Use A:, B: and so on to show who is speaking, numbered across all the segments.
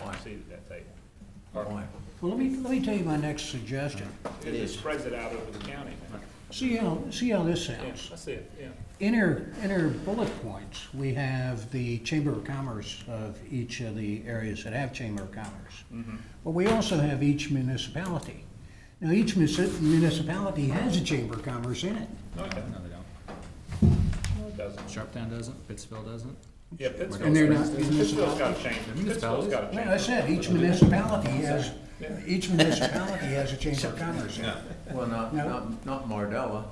A: seat at Oh, that table.
B: Boy,
C: Well, let me, let me tell you my next ssuggestion.
A: It just spreads it out over the county.
C: See how, see how this
A: Yeah,
C: sounds.
A: I see it, yeah.
C: In our, in our bullet points, we have the Chamber of Commerce of each of the areas that have Chamber of Commerce. But we also have each municipality. Now, each munici- municipality has a Chamber of Commerce in it.
A: No, it doesn't.
D: No, they don't.
A: No, it doesn't.
D: Sharptown doesn't, Pittsville doesn't.
A: Yeah, Pittsville.
C: And they're not
A: Pittsville's gotta change it. Pittsville's
D: municipalities?
A: gotta change
C: Well, I
A: it.
C: said, each municipality has, each municipality has a Chamber of Commerce in it.
B: well, not,
C: No.
B: not, not Mardella.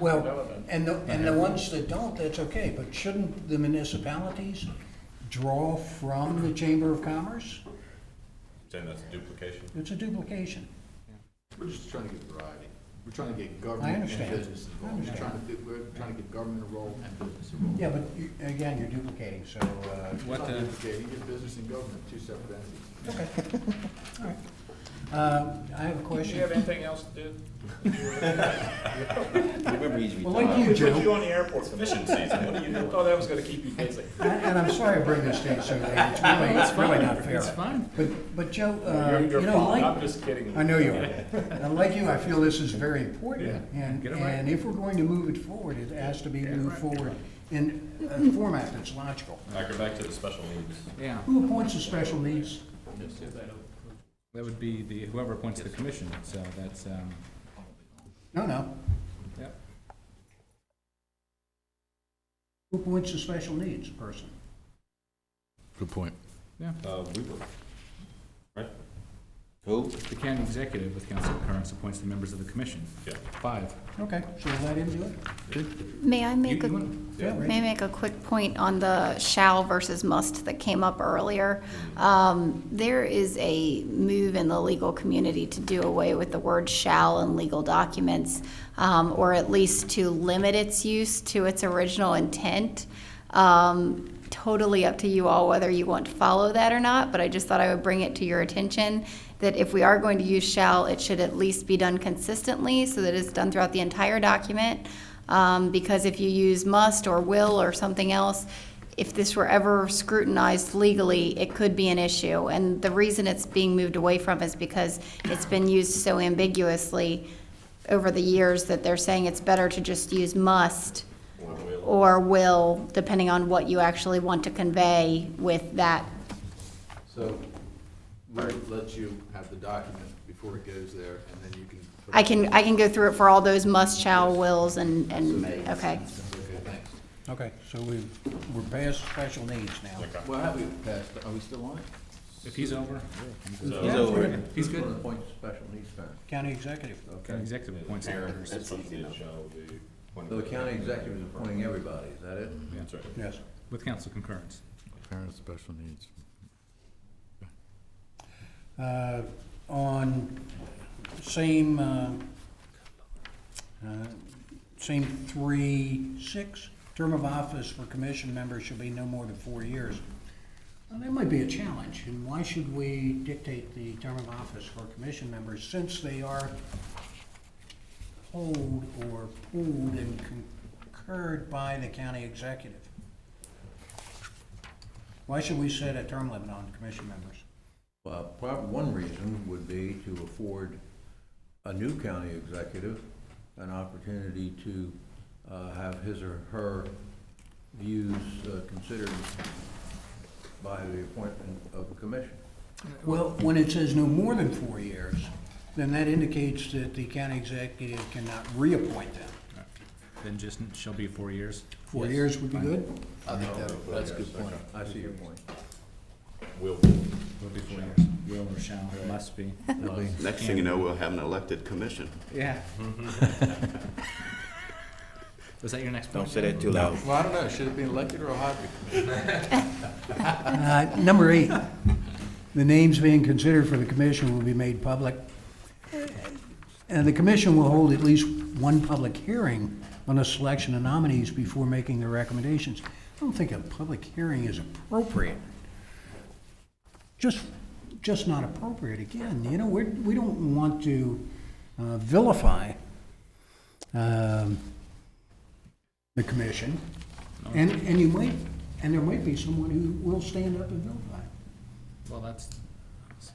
C: Well,
A: Relevant.
C: and the, and the ones that don't, that's okay, but shouldn't the municipalities draw from the Chamber of Commerce?
E: Saying that's a duplication?
C: It's a duplication.
F: We're just trying to get variety. We're trying to get
C: I
F: government and
C: understand.
F: business involved. We're
C: I
F: trying to, we're trying to get government involved and business involved.
C: Yeah, but you- again, you're duplicating, so, uh,
D: What,
F: Not
D: uh,
F: duplicating, you get business and government, two separate entities.
C: okay, all right. Uh, I have
A: Do you
C: a
A: have
C: question.
A: anything else to do?
C: Well, like you,
A: We put you
C: Joe,
A: on the airport commission season. What do you do? Thought that was gonna keep you busy.
C: and and I'm sorry I bring this to you so late, it's really, it's really not fair.
D: It's fine.
C: But, but Joe, uh,
A: You're-
C: you
A: you're
C: know,
A: fine.
C: like,
A: I'm just kidding.
C: I know you are. And like you, I feel this is very important. And,
D: get it right.
C: and if we're going to move it forward, it has to be moved forward in a format that's logical.
E: All right, go back to the special needs.
D: Yeah,
C: Who appoints the special needs?
D: that would be the, whoever appoints the commission, so that's, um,
C: No, no.
D: yep.
C: Who appoints the special needs person?
G: Good point.
E: Uh, we were, right?
D: The county executive with council concurrence appoints the members of the commission.
E: Yeah.
D: Five.
C: Okay, so let him do it?
H: May I
D: You-
H: make a,
D: you
H: may
D: want-
C: Yeah,
H: I
C: right.
H: make a quick point on the shall versus must that came up earlier? Um, There is a move in the legal community to do away with the word shall in legal documents, um, or at least to limit its use to its original intent. Um, Totally up to you all whether you want to follow that or not, but I just thought I would bring it to your attention that if we are going to use shall, it should at least be done consistently so that it's done throughout the entire document. Um, because if you use must or will or something else, if this were ever scrutinized legally, it could be an issue. And the reason it's being moved away from is because it's been used so ambiguously over the years that they're saying it's better to just use must or will, depending on what you actually want to convey with that.
F: So we'll let you have the document before it goes there, and then you can.
H: I can, I can go through it for all those must, shall, wills, and, and, okay.
F: Okay, thanks.
C: Okay, so we've, we're past special needs now.
F: Well, have we passed, are we still on it?
D: If he's over,
C: Yeah,
B: So,
D: he's
B: Who's gonna
D: good.
B: appoint special needs person?
C: County executive.
D: County executive appoints the members.
E: Special needs shall be.
B: So the county executive is appointing everybody, is that it?
E: That's right.
C: Yes.
D: with council concurrence.
G: Parents with special needs.
C: Uh, On same, uh, uh, same three, six, term of office for commission members should be no more than four years. Well, That might be a challenge, and why should we dictate the term of office for commission members since they are polled or pooled and concurred by the county executive? Why should we set a term limit on commission members?
B: Well, prob, one reason would be to afford a new county executive an opportunity to, uh, have his or her views uh, considered by the appointment of a commission.
C: Well, when it says no more than four years, then that indicates that the county executive cannot reappoint them.
D: Then just shall be four years.
C: Four years would be good?
F: I think that, that's a good point.
B: I see your point.
E: Will.
D: Will be four years. Will or shall, must be.
I: Next thing you know, we'll have an elected commission.
D: Yeah. Was that your next point?
I: that too loud.
F: Well, I don't know, should it be elected or a hybrid?
C: Uh, Number eight, the names being considered for the commission will be made public. And the commission will hold at least one public hearing on the selection of nominees before making their recommendations. I don't think a public hearing is appropriate. Just, just not appropriate. Again, you know, we're, we don't want to uh, vilify um, the commission. And, and you might, and there might be someone who will stand up and vilify.
D: Well, that's